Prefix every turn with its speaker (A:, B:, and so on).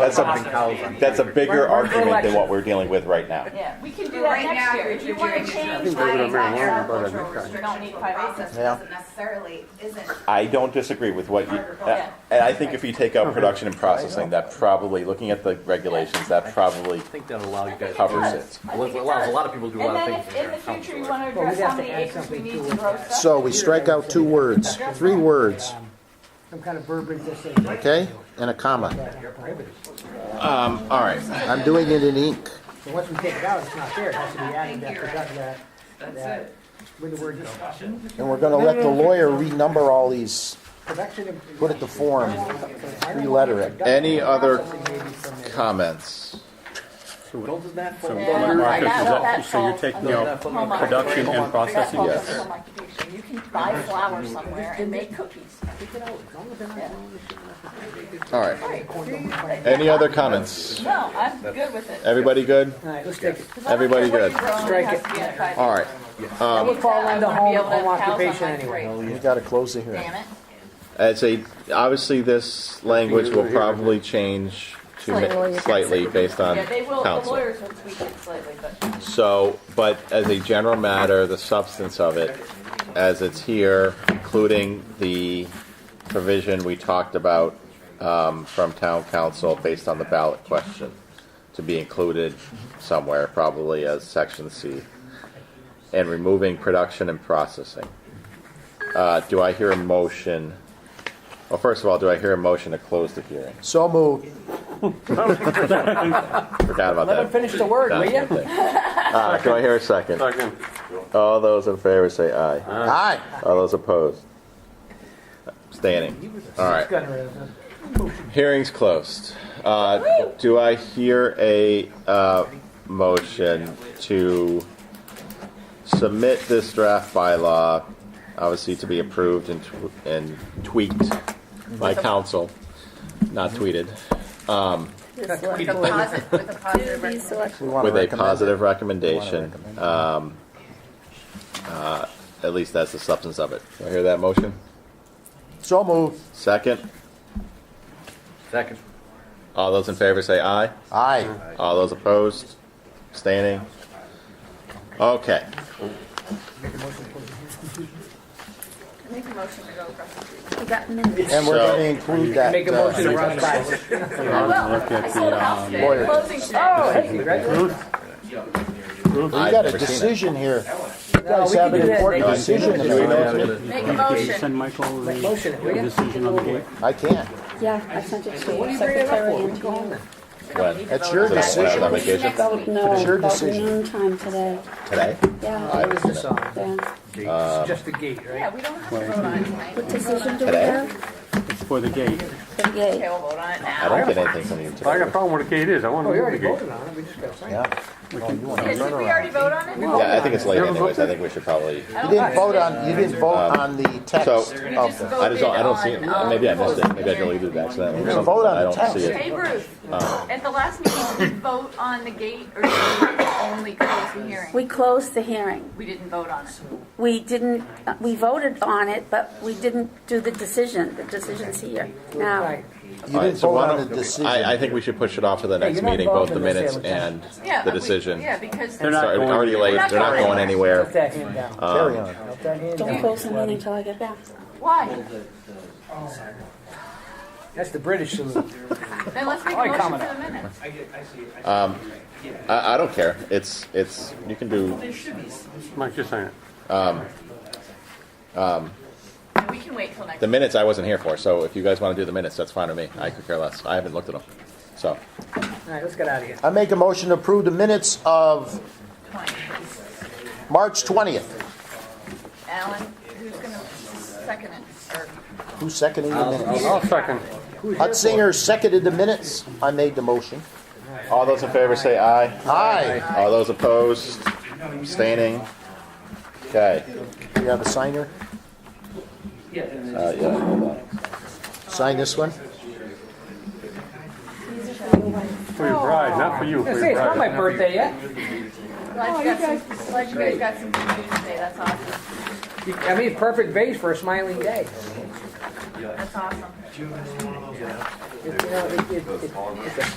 A: That's
B: Process
A: a,
B: being-
A: that's a bigger
C: Run for
A: argument than
C: election.
A: what we're dealing with right now.
C: Yeah, we can do
B: Right
C: that
B: now,
C: next year.
B: you're-
C: If you
B: you're
C: want
B: doing
C: to
B: it
C: change my,
B: yourself. Think we're
C: my
B: gonna
C: agricultural
B: marijuana, but I
C: restriction, you don't need
B: The
C: five acres.
B: process doesn't necessarily, isn't.
A: I don't disagree with what you, uh,
B: Yeah.
A: and I think if you take out production and processing, that probably, looking at the regulations, that probably
D: I think that'll allow you guys.
A: Covers
D: to-
A: it.
C: I
D: Allows
C: think it
D: allows a
C: does.
D: lot of people to do a
C: And
D: lot
C: then
D: of
C: if
D: things.
C: in the future you
D: to.
C: want to
E: Well, we'd
C: address
E: have
C: how
E: to
C: many
E: add
C: acres we
E: something
C: need
E: to
C: to
E: it.
C: grow stuff.
F: So we strike out two words, three words,
E: Um, Some kind of verbiage that says.
F: okay, and a comma.
E: That are prohibited.
A: All right.
F: I'm doing it in ink.
E: So once we take it out, it's not there, it has to be added,
B: I think
E: that,
B: you're
E: that, that, that-
B: That's it.
E: with the word discussion,
F: And we're gonna let the lawyer renumber all these,
E: production and.
F: put it to form, three-letter it.
A: Any other
E: Processing
A: comments?
D: Doesn't that fall?
C: Yeah.
G: Marcus
C: That-
G: is up,
C: that
G: so you're
C: falls
G: taking
C: under
G: out
C: home occupation.
G: production and
C: That
G: processing.
C: falls
A: yes.
C: under home occupation. You can buy flour somewhere and make cookies.
A: All right. Any other comments?
C: No, I'm good with it.
A: Everybody good?
E: All right, let's take it.
C: 'Cause I don't
A: Everybody
C: care what
A: good.
C: you grow,
E: Strike
C: has
E: it.
C: to be at five
A: All right.
E: That would fall
C: acres. I
E: under
C: wanna be
E: home,
C: able to
E: home
C: have cows on
E: occupation
C: my
E: anyway.
C: grave.
F: We gotta close the hearing.
C: Damn it.
A: I'd say, obviously, this language will probably change to ma- slightly based on
C: Yeah, they will, the
A: council.
C: lawyers will tweak it slightly, but
A: So, but as a general matter, the substance of it, as it's here, including the provision we talked about um, from town council based on the ballot question, to be included somewhere, probably as section C, and removing production and processing. Uh, Do I hear a motion? Well, first of all, do I hear a motion to close the hearing?
F: So moved.
A: Forgot about that.
E: Let him finish the word, will
A: That's
E: you?
A: one thing. Uh, do I hear a second?
G: Second.
A: All those in favor say aye.
F: Aye.
A: All those opposed? Standing. All right.
E: Gunner is a-
A: Hearing's closed. Uh, do I hear a uh, motion to submit this draft bylaw, obviously to be approved and, tw- and tweaked by council, not
F: Mm-hmm.
A: tweeted,
B: With a positive, with a positive recommendation.
F: We wanna
A: with a
F: recommend it.
A: positive recommendation, um, uh, at least that's the substance of it. Do I hear that motion?
F: So moved.
A: Second?
D: Second.
A: All those in favor say aye.
F: Aye.
A: All those opposed? Standing? Okay.
B: Make a motion to go across the street.
G: We got minutes.
F: And we're
A: So-
F: gonna include that.
E: Make a
F: uh,
E: motion to run by.
G: Look at the,
A: um,
G: uh,
F: Lawyer.
C: closing today.
E: Oh, hey, congratulations.
F: We
A: I've
F: got
A: never
F: a
A: seen it.
F: decision here. You
E: No,
F: guys
E: we
F: have
E: can
F: an
E: do that
F: important
E: next
A: year.
F: decision.
A: Do
F: to
A: we know-
F: make.
B: Make a
G: Did you
B: motion.
G: send Michael the
E: Motion, will
G: the
E: you?
G: decision on the gate?
F: I can't.
H: Yeah, I sent it to
E: What are
H: the
E: you bringing it up for? We
H: secretary and
E: can
H: to
E: go home
H: you.
E: then.
A: When?
F: That's your
A: Is it
F: decision.
A: on vacation?
B: Next week.
H: No,
F: It's your
H: about
F: decision.
H: noontime today.
A: Today?
H: Yeah,
E: What is this on?
H: yeah.
E: Gate. It's just a gate, right?
B: Yeah, we don't have to vote on it tonight.
H: What decision do we
A: Today?
H: have?
G: It's for the gate.
H: The
B: Okay,
H: gate.
B: we'll vote on it
A: I
B: now.
A: don't get anything from you
G: I got a
A: today.
G: problem with the gate is, I want
E: Oh,
G: to
E: we
G: move the
E: already
G: gate.
E: voted on it, we just gotta sign it.
F: Yeah. Oh, you want to
B: Did we
F: turn
B: already
F: around.
B: vote on it?
E: No.
A: Yeah, I think it's late
G: You haven't
A: anyways. I
G: voted?
A: think we should probably,
F: You didn't vote on, you didn't vote on the text
A: Um, So-
F: of the.
A: I just don't, I don't see it. Maybe I missed it. Maybe I deleted it accidentally. or
F: You
A: something.
F: vote on
A: I
F: the
A: don't see
F: text.
A: it.
C: Hey, Bruce,
A: Oh.
C: at the last meeting, did we vote on the gate or did we only close the hearing?
H: We closed the hearing.
C: We didn't vote on it.
H: We didn't, uh, we voted on it, but we didn't do the decision. The decision's here now.
E: Right.
F: You
A: All
F: didn't
A: right, so
F: vote
A: why
F: on
A: don't-
F: the decision.
A: I, I think we should push it off to the next
E: you're not
A: meeting, both
E: involved
A: the
E: in the
A: minutes
E: sale,
A: and
C: Yeah,
A: the
C: we-
A: decision.
C: Yeah, because.
A: Sorry,
G: They're not
A: it's
G: going
A: already late. They're not going
E: Put
A: anywhere.
E: that hand down.
A: um,
F: Carry on.
E: Put that hand
H: Don't
E: down.
H: close the meeting until I get back.
C: Why?
E: That's the British salute.
C: Then let's make a
E: Why
C: motion for
E: comment
C: the minutes.
A: I, I don't care. It's, it's, you can do,
G: Mike, just sign it.
C: And we can wait till next.
A: the minutes I wasn't here for. So if you guys want to do the minutes, that's fine with me. I could care less. I haven't looked at them. So,
E: All right, let's get out of here.
F: I make a motion to approve the minutes of
C: point.
F: March 20th.
C: Alan, who's gonna second it? Or-
F: Who's seconding the minutes?
G: I'll second.
F: Hutzinger seconded the minutes. I made the motion.
A: all those in favor say aye.
F: Aye.
A: All those opposed? Abstaining? Okay.
F: We have a signer.
A: Uh, yeah, hold on.
F: Sign this one.
G: For your bride, not for you,
E: I
G: for
E: was gonna
G: your
E: say,
G: bride.
E: it's not my birthday yet.
C: Glad Oh, you got some, glad you guys got some good news today, that's awesome.
E: You- I mean, perfect base for a smiling day.
C: That's awesome.
E: It- You know, it, it, it, it's a